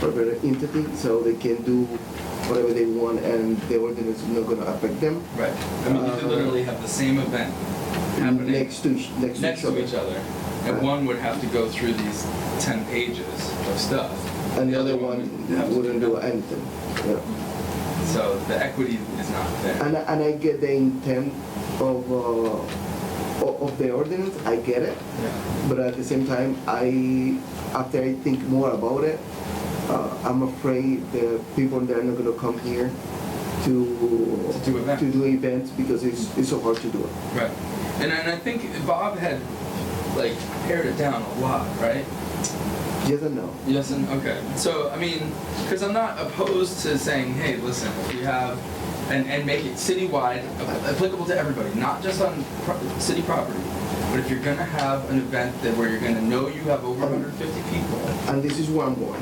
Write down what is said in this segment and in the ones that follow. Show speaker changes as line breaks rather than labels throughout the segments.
corporate entity, so they can do whatever they want and the ordinance is not gonna affect them.
Right. I mean, you could
Uh,
literally have the same event happening
Next to, each- next to
next
each other.
each other, and
Uh,
one would have to go through these ten pages of stuff,
And the other one
would have to
wouldn't
do
do
nothing.
anything, yeah.
So the equity is not there.
And, I- and I get the intent of, uh, o- of the ordinance, I get it,
Yeah.
but at the same time, I, after I think more about it, uh, I'm afraid the people that are not gonna come here to.
To do events.
To do events because it's, it's so hard to do it.
Right. And and I think Bob had like pared it down a lot, right?
Yes and no.
Yes, and okay. So I mean, because I'm not opposed to saying, hey, listen, if you have, and and make it citywide, ap- applicable to everybody, not just on pro- city property. But if you're gonna have an event that where you're gonna know you have over 150 people,
And this is one more.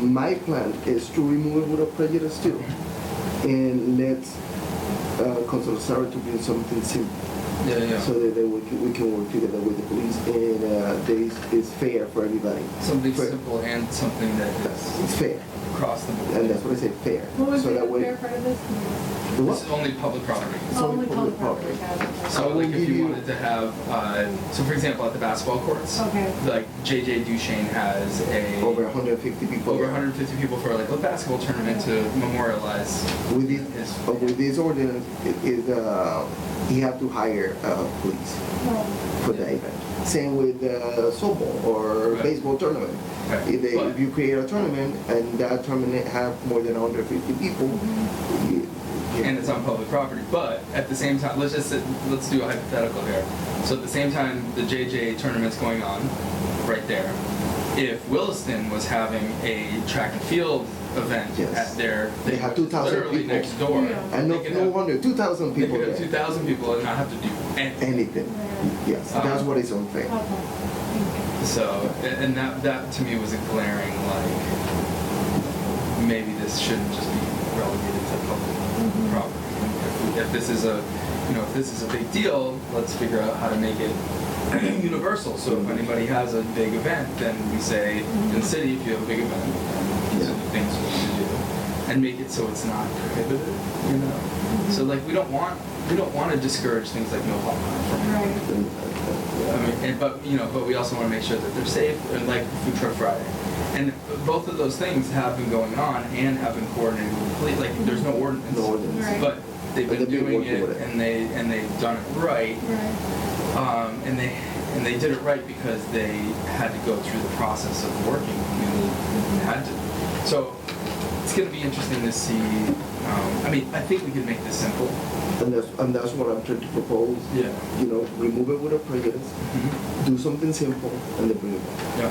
My plan is to remove it without prejudice too, and let uh, Council Sarah to bring something simple.
yeah,
so that, that we, can, we can work together with the police and uh, this is fair for everybody.
something
fair.
simple and something that is
It's fair,
across the board.
and that's what I say fair.
What was
so
the
that way,
fair part of this? Oh,
The
This is
what?
only public property.
It's only
Only
public
public property.
So
I will
like if
give
you
you-
wanted to have, uh, so for example, at the basketball courts,
Okay.
like JJ Duchesne has a
Over 150 people.
over 150 people for like a basketball tournament to memorialize.
With this,
his-
uh, with this ordinance, it is uh, you have to hire uh, police
Well,
for the event. Same with uh, softball or
Right.
baseball tournament.
Right.
If, they, if
But-
you create a tournament and that tournament have more than 150 people, you, you-
and it's on public property. But at the same time, let's just sit, let's do a hypothetical here. So at the same time, the JJ tournament's going on, right there. If Williston was having a track and field event
Yes.
at their,
They have 2,000
literally
people.
next door.
Yeah.
and no,
they could
no
have-
wonder 2,000
They
people
could have
there.
2,000 people and not have to do anything.
anything. Yes,
Um,
that's what is
okay,
unfair.
thank
So, a- and that, that to me was a glaring, like, maybe this shouldn't just be relegated to public
Mhm.
property. If- If this is a, you know, if this is a big deal, let's figure out how to make it universal. So if anybody has a big event, then we say, in the city, if you have a big event, these are the things we need to do. And make it so it's not prohibited, you know? So like, we don't want, we don't want to discourage things like no hot from
you. Right.
I mean, and, but you know, but we also want to make sure that they're safe, and like Food Truck Friday, and both of those things have been going on and have been coordinated with the police. Like, there's no ordinance,
No ordinance.
Right.
but they've
But they've
been
been
doing
working
it,
with it.
and they and they've done it right,
Right.
um, and they and they did it right because they had to go through the process of working. I mean, they had to. So it's going to be interesting to see. Um, I mean, I think we can make this simple.
And that's, and that's what I'm trying to propose.
Yeah.
You know, remove it with a prejudice,
Mm-hmm.
do something simple, and then bring it back.
Yeah.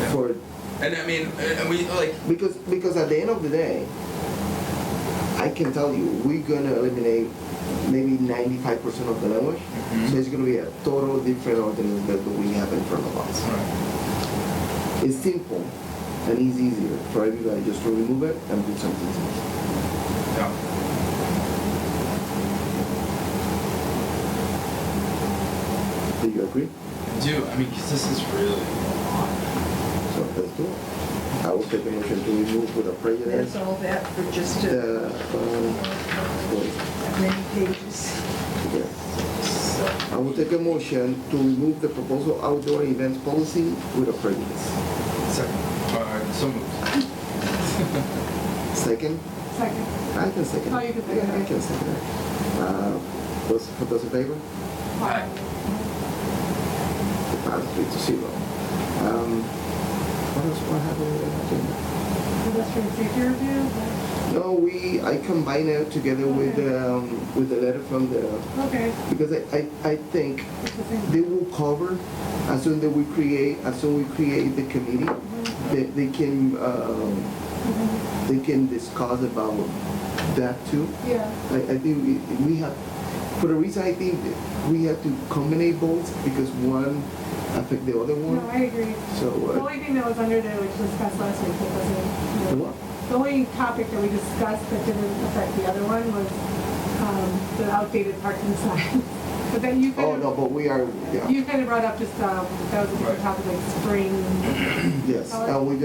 Yeah.
For,
And I mean, uh, and we like.
because, because at the end of the day, I can tell you, we're gonna eliminate maybe ninety-five percent of the language.
Mhm.
So it's gonna be a total different ordinance that we have in front of us. It's simple and it's easier for everybody just to remove it and do something simple.
Yeah.
Do you agree?
Do I mean? 'cause this is really a lot.
So let's do it. I will take a motion to remove with a prejudice.
There's all that for just
The,
a,
um, yes.
many pages.
So,
I will take a motion to remove the proposal outdoor events policy with a prejudice.
second. All right, so moved.
Second?
Second.
I can second.
Oh, you can second.
Yeah, I can second it. Uh, those, for those in favor?
Aye.
The pass three to zero. Um, what else, what happened with the agenda?
Pedestrian safety review?
No, we, I combine it together with,
Okay.
um, with the letter from the,
Okay.
because I, I, I think
It's the same.
they will cover as soon that we create as soon we create the committee they, they can um,
Mhm.
they can discuss about that too
Yeah.
I, I think we, we have for the reason I think that we have to combine both because one affect the other
No,
one
I agree.
so
The
uh,
only thing that was under there, which was discussed last week, that
the
wasn't.
what?
The only topic that we discussed that didn't affect the other one was um, the outdated parking sign. But then you
oh
kind
no
of,
but we are yeah
uh, you kind of brought up just, um, that was a different
Right.
topic, like spring
yes and we